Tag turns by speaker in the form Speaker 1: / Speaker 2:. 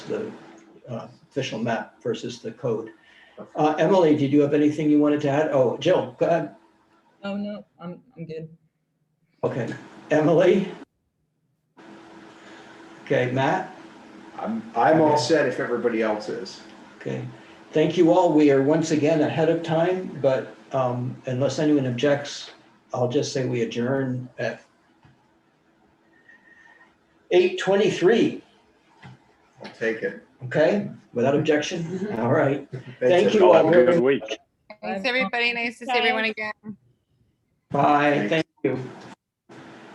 Speaker 1: the uh, official map versus the code. Uh, Emily, did you have anything you wanted to add? Oh, Jill, go ahead.
Speaker 2: Oh, no, I'm, I'm good.
Speaker 1: Okay, Emily? Okay, Matt?
Speaker 3: I'm, I'm all set if everybody else is.
Speaker 1: Okay, thank you all. We are once again ahead of time, but um, unless anyone objects, I'll just say we adjourn at 8:23,
Speaker 3: I'll take it.
Speaker 1: okay? Without objection? All right.
Speaker 3: Thanks,
Speaker 1: Thank you
Speaker 3: everybody.
Speaker 4: Y'all
Speaker 1: all
Speaker 4: have a
Speaker 1: very
Speaker 4: good
Speaker 1: much.
Speaker 4: week.
Speaker 5: Thanks,
Speaker 2: Bye.
Speaker 5: everybody. Nice to see everyone again.
Speaker 1: Bye,
Speaker 3: Thanks.
Speaker 1: thank you.